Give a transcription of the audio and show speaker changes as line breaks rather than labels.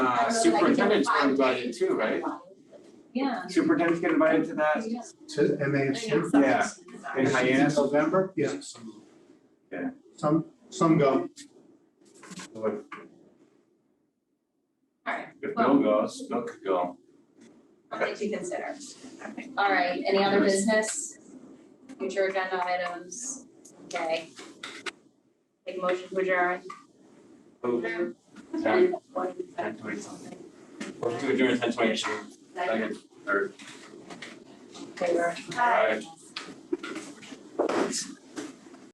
Uh, superintendent's were invited too, right?
Yeah.
Superintendent's get invited to that
To MASC?
Yeah. in Hyannis,
November? Yeah.
Yeah.
Some, some go.
If
Alright,
Bill goes, Bill could go.
something to consider. Alright, any other business? Future agenda items, okay. Take a motion to adjourn.
Who-
And
Ten,
one-
ten twenty something. We're doing ten twenty,
Second,
second, third,
favor.
Aye.